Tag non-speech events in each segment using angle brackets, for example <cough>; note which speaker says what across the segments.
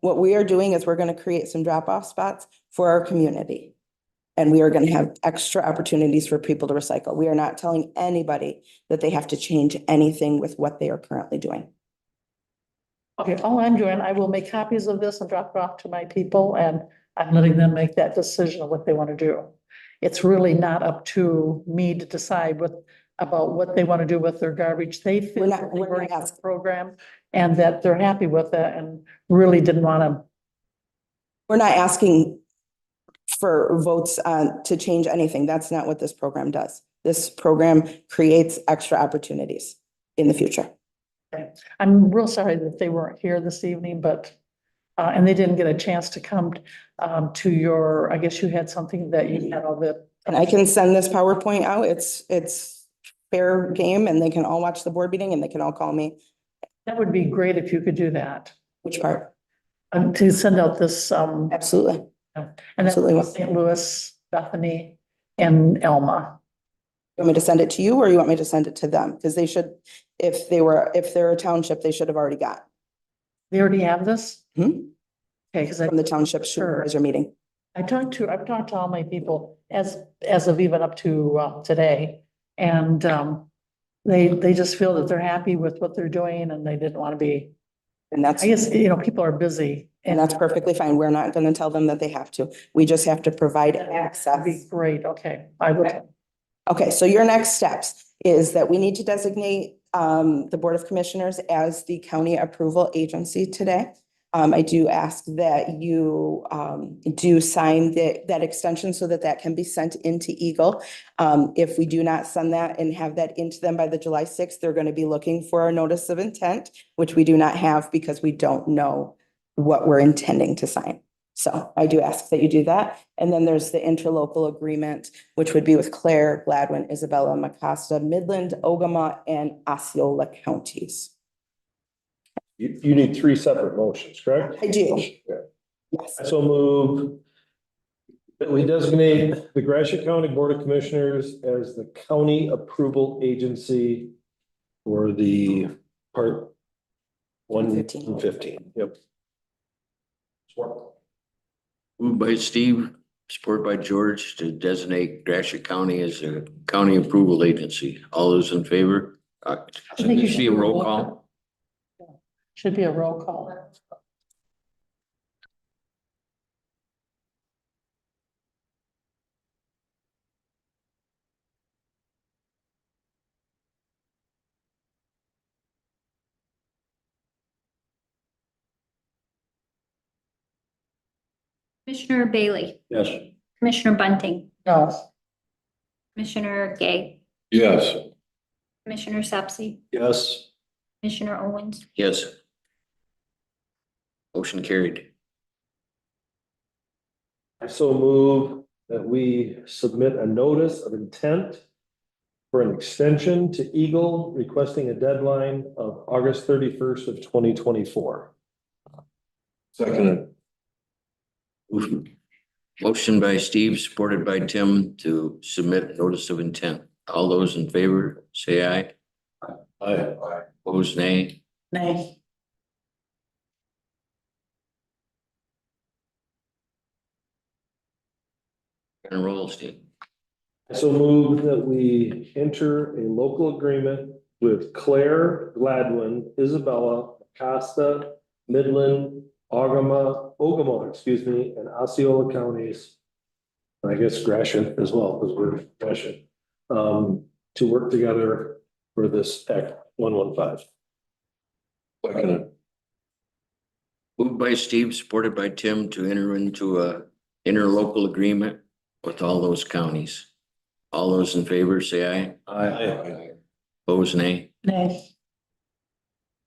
Speaker 1: What we are doing is we're going to create some drop-off spots for our community. And we are going to have extra opportunities for people to recycle. We are not telling anybody that they have to change anything with what they are currently doing.
Speaker 2: Okay, all I'm doing, I will make copies of this and drop it off to my people and I'm letting them make that decision of what they want to do. It's really not up to me to decide what, about what they want to do with their garbage. They feel
Speaker 1: We're not-
Speaker 2: that they
Speaker 1: we're
Speaker 2: were
Speaker 1: not
Speaker 2: in this
Speaker 1: asking.
Speaker 2: program and that they're happy with it and really didn't want to.
Speaker 1: We're not asking for votes uh, to change anything. That's not what this program does. This program creates extra opportunities in the future.
Speaker 2: I'm real sorry that they weren't here this evening, but, uh, and they didn't get a chance to come, um, to your, I guess you had something that you had all the.
Speaker 1: And I can send this PowerPoint out. It's, it's fair game and they can all watch the board meeting and they can all call me.
Speaker 2: That would be great if you could do that,
Speaker 1: Which part?
Speaker 2: um, to send out this, um,
Speaker 1: Absolutely.
Speaker 2: and that's
Speaker 1: Absolutely.
Speaker 2: St. Louis, Bethany and Elma.
Speaker 1: You Want me to send it to you or you want me to send it to them? Because they should, if they were, if they're a township, they should have already got
Speaker 2: They already have this?
Speaker 1: Hmm.
Speaker 2: Okay, because I,
Speaker 1: from the township supervisor meeting.
Speaker 2: I talked to, I've talked to all my people as, as of even up to, uh, today. And, um, they, they just feel that they're happy with what they're doing and they didn't want to be
Speaker 1: And that's,
Speaker 2: I guess, you know, people are busy.
Speaker 1: and that's perfectly fine. We're not going to tell them that they have to. We just have to provide
Speaker 2: That'd be
Speaker 1: access.
Speaker 2: great, okay, I would,
Speaker 1: Okay, so your next steps is that we need to designate um the Board of Commissioners as the county approval agency today. Um, I do ask that you um do sign that that extension so that that can be sent into Eagle. Um, if we do not send that and have that into them by the July sixth, they're gonna be looking for a notice of intent, which we do not have because we don't know what we're intending to sign. So I do ask that you do that. And then there's the interlocal agreement which would be with Claire, Gladwin, Isabella, Macasta, Midland, Ogama, and Osceola counties.
Speaker 3: You, you need three separate motions, correct?
Speaker 1: I do. Yes,
Speaker 3: So move that we designate the Gratiot County Board of Commissioners as the county approval agency for the part one
Speaker 1: 115.
Speaker 3: fifteen, yep.
Speaker 4: Moved by Steve, supported by George to designate Gratiot County as a county approval agency. All those in favor? Uh,
Speaker 2: I think you
Speaker 4: should be a
Speaker 2: should-
Speaker 4: roll call.
Speaker 2: should be a roll call.
Speaker 5: Commissioner Bailey,
Speaker 3: Yes.
Speaker 5: Commissioner Bunting,
Speaker 2: No,
Speaker 5: Commissioner Gay,
Speaker 3: Yes.
Speaker 5: Commissioner Sapsy,
Speaker 3: Yes.
Speaker 5: Commissioner Owens,
Speaker 4: Yes. Motion carried. <laughs>
Speaker 3: I so move that we submit a notice of intent for an extension to Eagle requesting a deadline of August thirty-first of twenty twenty-four. Second.
Speaker 4: Motion by Steve, supported by Tim to submit notice of intent. All those in favor, say aye.
Speaker 3: Aye.
Speaker 4: Opposed, nay.
Speaker 2: nay,
Speaker 4: And roll, Steve.
Speaker 3: I so move that we enter a local agreement with Claire Gladwin, Isabella, Costa, Midland, Ogama, Ogama, excuse me, and Osceola counties. And I guess Gratiot as well, because we're Gratiot, um, to work together for this Act one one five.
Speaker 4: Moved by Steve, supported by Tim to enter into a interlocal agreement with all those counties. All those in favor, say aye.
Speaker 3: Aye.
Speaker 4: Opposed, nay.
Speaker 2: nay,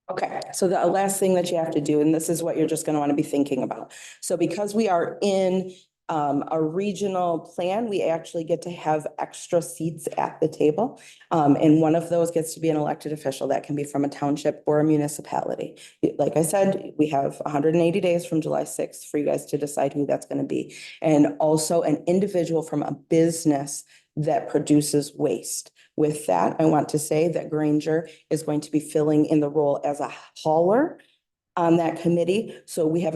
Speaker 1: okay. So the last thing that you have to do, and this is what you're just gonna wanna be thinking about. So because we are in um a regional plan, we actually get to have extra seats at the table. Um, and one of those gets to be an elected official. That can be from a township or a municipality. Like I said, we have hundred and eighty days from July sixth for you guys to decide who that's gonna be. And also an individual from a business that produces waste. With that, I want to say that Granger is going to be filling in the role as a hauler on that committee. So we have an